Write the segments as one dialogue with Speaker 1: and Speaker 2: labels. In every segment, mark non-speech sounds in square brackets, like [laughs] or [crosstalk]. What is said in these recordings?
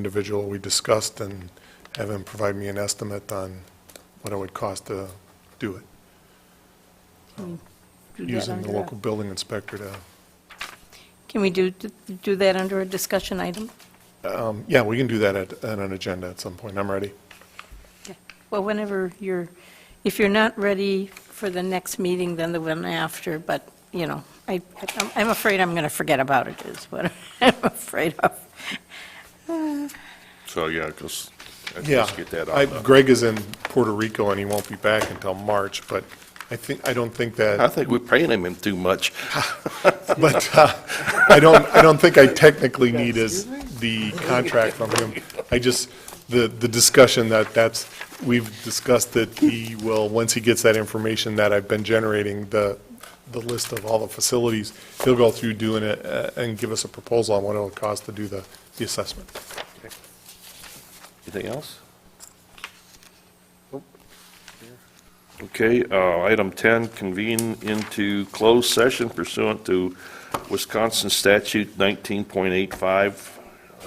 Speaker 1: individual we discussed and have him provide me an estimate on what it would cost to do it,
Speaker 2: Do that
Speaker 1: using
Speaker 2: under
Speaker 1: the
Speaker 2: the-
Speaker 1: local building inspector to
Speaker 2: Can we do, do that under a discussion item?
Speaker 1: Um, Yeah, we can do that at, at an agenda at some point. I'm ready.
Speaker 2: Well, whenever you're, if you're not ready for the next meeting, then the one after, but, you know, I, I'm- I'm afraid I'm going to forget about it, is what [laughs] I'm afraid of.
Speaker 3: So, yeah, because,
Speaker 1: Yeah.
Speaker 3: let's get that
Speaker 1: I-
Speaker 3: out. there.
Speaker 1: Greg is in Puerto Rico and he won't be back until March, but I think, I don't think
Speaker 3: I
Speaker 1: that,
Speaker 3: think we're paying him too much.
Speaker 1: [laughs] but uh, I don't, I don't think I technically need is the contract from him. I just, the, the discussion that that's, we've discussed that he will, once he gets that information that I've been generating, the, the list of all the facilities, he'll go through doing it uh, and give us a proposal on what it would cost to do the, the assessment.
Speaker 3: Anything else? Okay, uh, item 10, convene into closed session pursuant to Wisconsin Statute 19.85, uh,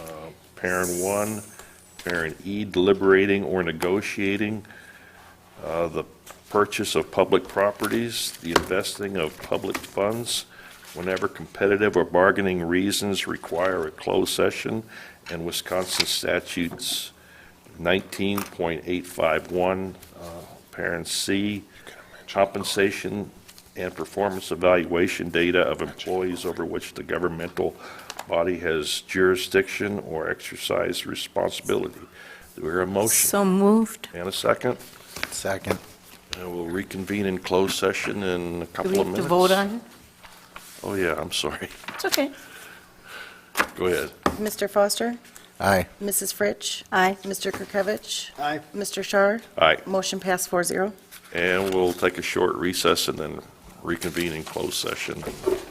Speaker 3: parent 1, parent E, deliberating or negotiating uh, the purchase of public properties, the investing of public funds, whenever competitive or bargaining reasons require a closed session, and Wisconsin statutes 19.851, uh, parent C, compensation and performance evaluation data of employees over which the governmental body has jurisdiction or exercise responsibility. Do we hear a motion?
Speaker 2: So moved.
Speaker 3: And a second?
Speaker 4: Second.
Speaker 3: And we'll reconvene in closed session in a
Speaker 2: Do
Speaker 3: couple
Speaker 2: we
Speaker 3: of
Speaker 2: have to
Speaker 3: minutes.
Speaker 2: vote on it?
Speaker 3: Oh, yeah, I'm sorry. [laughs]
Speaker 2: It's okay.
Speaker 3: Go ahead.
Speaker 5: Mr. Foster?
Speaker 4: Aye.
Speaker 5: Mrs. Fritsch?
Speaker 2: Aye.
Speaker 5: Mr. Kirkovich?
Speaker 4: Aye.
Speaker 5: Mr. Shar?
Speaker 3: All right,
Speaker 5: Motion passed four zero.
Speaker 3: and we'll take a short recess and then reconvene in closed session